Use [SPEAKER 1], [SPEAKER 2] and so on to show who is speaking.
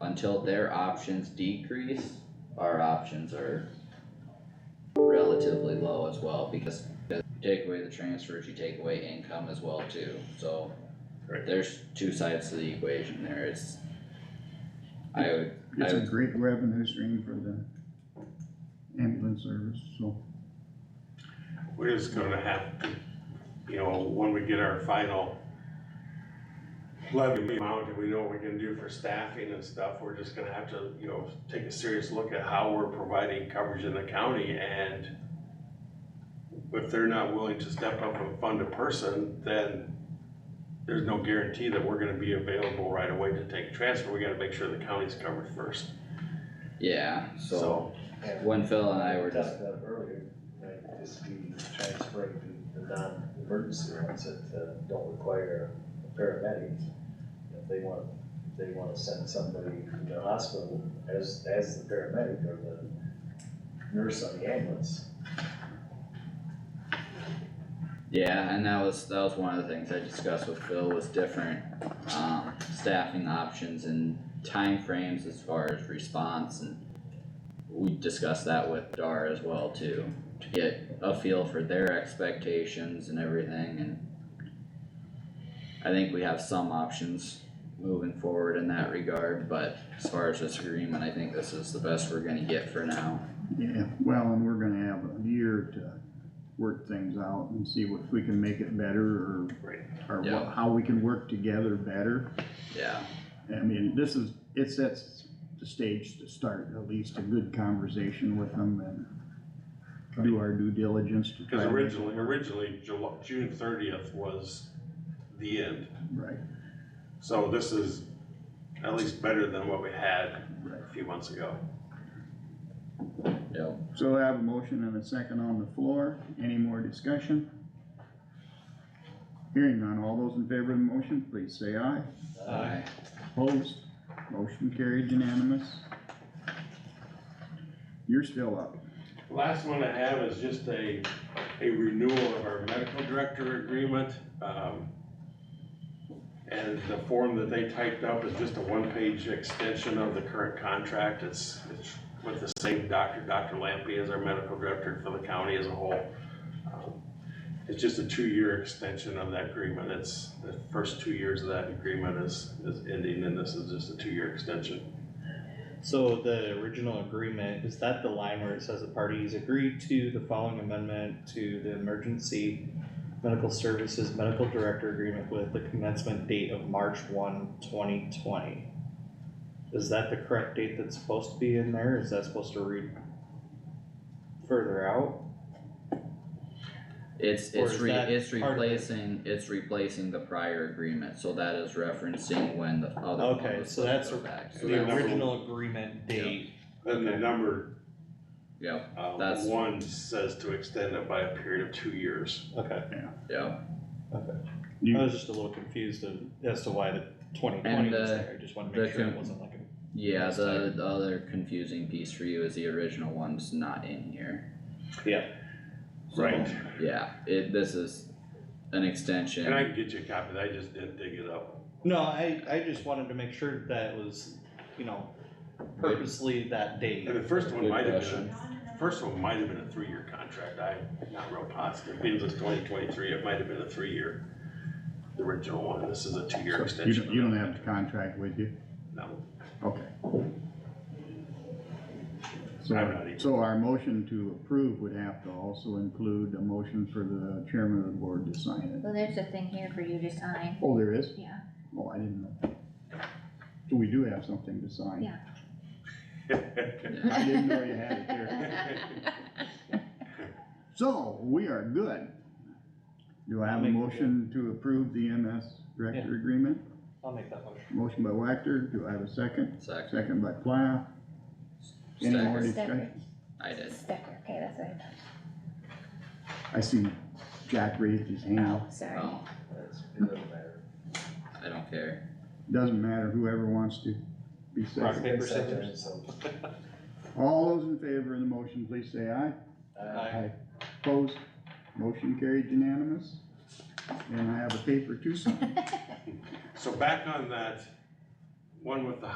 [SPEAKER 1] until their options decrease, our options are relatively low as well, because if you take away the transfers, you take away income as well too, so
[SPEAKER 2] Right.
[SPEAKER 1] there's two sides to the equation there, it's I would,
[SPEAKER 3] It's a great revenue stream for the ambulance service, so.
[SPEAKER 2] We're just gonna have to, you know, when we get our final levy amount and we know what we can do for staffing and stuff, we're just gonna have to, you know, take a serious look at how we're providing coverage in the county and if they're not willing to step up and fund a person, then there's no guarantee that we're gonna be available right away to take a transfer. We gotta make sure the county's covered first,
[SPEAKER 1] yeah, so
[SPEAKER 2] so.
[SPEAKER 4] And
[SPEAKER 1] when Phil and I
[SPEAKER 4] we
[SPEAKER 1] were
[SPEAKER 4] talked
[SPEAKER 1] just,
[SPEAKER 4] about earlier, might just be transferring the, the non-emergency ones that, uh, don't require a paramedic. If they want, if they wanna send somebody from the hospital as, as the paramedic or the nurse on the ambulance.
[SPEAKER 1] yeah, and that was, that was one of the things I discussed with Phil was different um staffing options and timeframes as far as response and we discussed that with Dar as well too, to get a feel for their expectations and everything and I think we have some options moving forward in that regard, but as far as this agreement, I think this is the best we're gonna get for now.
[SPEAKER 3] Yeah, well, and we're gonna have a year to work things out and see what- if we can make it better or,
[SPEAKER 2] Right.
[SPEAKER 3] or
[SPEAKER 1] Yeah.
[SPEAKER 3] what, how we can work together better.
[SPEAKER 1] Yeah,
[SPEAKER 3] I mean, this is, it sets the stage to start at least a good conversation with them and do our due diligence to try.
[SPEAKER 2] Cause
[SPEAKER 3] to-
[SPEAKER 2] originally, originally July, June thirtieth was the end.
[SPEAKER 3] Right,
[SPEAKER 2] So this is at least better than what we had
[SPEAKER 3] right.
[SPEAKER 2] a few months ago.
[SPEAKER 1] yep.
[SPEAKER 3] So I have a motion and a second on the floor. Any more discussion? Hearing none. All those in favor of the motion, please say aye.
[SPEAKER 4] uh,
[SPEAKER 1] Aye.
[SPEAKER 3] Opposed? Motion carried unanimous. You're still up.
[SPEAKER 2] Last one I have is just a, a renewal of our medical director agreement. um, And the form that they typed up is just a one-page extension of the current contract. It's, it's with the same doctor, Dr. Lampy is our medical director for the county as a whole. Um, It's just a two-year extension of that agreement. It's, the first two years of that agreement is, is ending and this is just a two-year extension.
[SPEAKER 5] So the original agreement, is that the line where it says the parties agree to the following amendment to the emergency medical services medical director agreement with the commencement date of March 1, 2020? Is that the correct date that's supposed to be in there? Is that supposed to read further out?
[SPEAKER 1] It's,
[SPEAKER 5] Or
[SPEAKER 1] it's
[SPEAKER 5] is
[SPEAKER 1] re,
[SPEAKER 5] that
[SPEAKER 1] it's
[SPEAKER 5] part of it?
[SPEAKER 1] replacing, it's replacing the prior agreement, so that is referencing when the other one
[SPEAKER 5] Okay,
[SPEAKER 1] was
[SPEAKER 5] so
[SPEAKER 1] supposed
[SPEAKER 5] that's
[SPEAKER 1] to go
[SPEAKER 5] a-
[SPEAKER 1] back. So
[SPEAKER 2] the
[SPEAKER 5] The
[SPEAKER 1] that's-
[SPEAKER 2] number-
[SPEAKER 5] original agreement date,
[SPEAKER 2] And the
[SPEAKER 5] Okay.
[SPEAKER 2] number,
[SPEAKER 1] Yep,
[SPEAKER 2] uh,
[SPEAKER 1] That's-
[SPEAKER 2] one says to extend it by a period of two years.
[SPEAKER 5] okay,
[SPEAKER 1] yep,
[SPEAKER 3] You-
[SPEAKER 5] I was just a little confused of, as to why the twenty twenty
[SPEAKER 1] And,
[SPEAKER 5] was
[SPEAKER 1] uh,
[SPEAKER 5] there, I just wanted to
[SPEAKER 1] the
[SPEAKER 5] make sure it
[SPEAKER 1] con-
[SPEAKER 5] wasn't like a
[SPEAKER 1] yeah,
[SPEAKER 5] Next
[SPEAKER 1] the, the other confusing piece for you is the original one's not in here.
[SPEAKER 5] Yeah.
[SPEAKER 1] So,
[SPEAKER 2] Right.
[SPEAKER 1] Yeah, it, this is an extension.
[SPEAKER 2] And I can get you a copy, I just didn't dig it up.
[SPEAKER 5] No, I, I just wanted to make sure that was, you know, purposely that date.
[SPEAKER 2] And the first one
[SPEAKER 1] Good
[SPEAKER 2] might have been,
[SPEAKER 1] question.
[SPEAKER 2] a- first one might have been a three-year contract, I'm not real positive, being this twenty twenty-three, it might have been a three-year. The original one, this is a two-year
[SPEAKER 3] So You
[SPEAKER 2] extension.
[SPEAKER 3] don't, you don't have the contract with you?
[SPEAKER 2] No,
[SPEAKER 3] Okay. So,
[SPEAKER 2] I'm not even-
[SPEAKER 3] so our motion to approve would have to also include a motion for the chairman of the board to sign it.
[SPEAKER 6] Well, there's a thing here for you to sign,
[SPEAKER 3] Oh, there is?
[SPEAKER 6] yeah,
[SPEAKER 3] Oh, I didn't know. So we do have something to sign.
[SPEAKER 6] Yeah.
[SPEAKER 3] I didn't know you had it here. So, we are good. Do I have a
[SPEAKER 5] Make-
[SPEAKER 3] motion to approve the MS director agreement?
[SPEAKER 5] I'll make that motion.
[SPEAKER 3] Motion by Wactor, do I have a second?
[SPEAKER 1] Second,
[SPEAKER 3] Second by Plow. Any more
[SPEAKER 1] Second.
[SPEAKER 3] discussion?
[SPEAKER 1] I did,
[SPEAKER 6] Stecker, okay, that's what I
[SPEAKER 3] I see Jack raised his hand.
[SPEAKER 6] thought, sorry.
[SPEAKER 1] oh,
[SPEAKER 4] That's, it doesn't matter.
[SPEAKER 1] I don't care,
[SPEAKER 3] Doesn't matter, whoever wants to be
[SPEAKER 5] Rock,
[SPEAKER 3] second.
[SPEAKER 5] paper,
[SPEAKER 4] Second,
[SPEAKER 5] scissors.
[SPEAKER 4] so,
[SPEAKER 3] All those in favor of the motion, please say aye.
[SPEAKER 4] uh,
[SPEAKER 3] Opposed, motion carried unanimous. And I have a paper to sign.
[SPEAKER 2] so back on that, one with the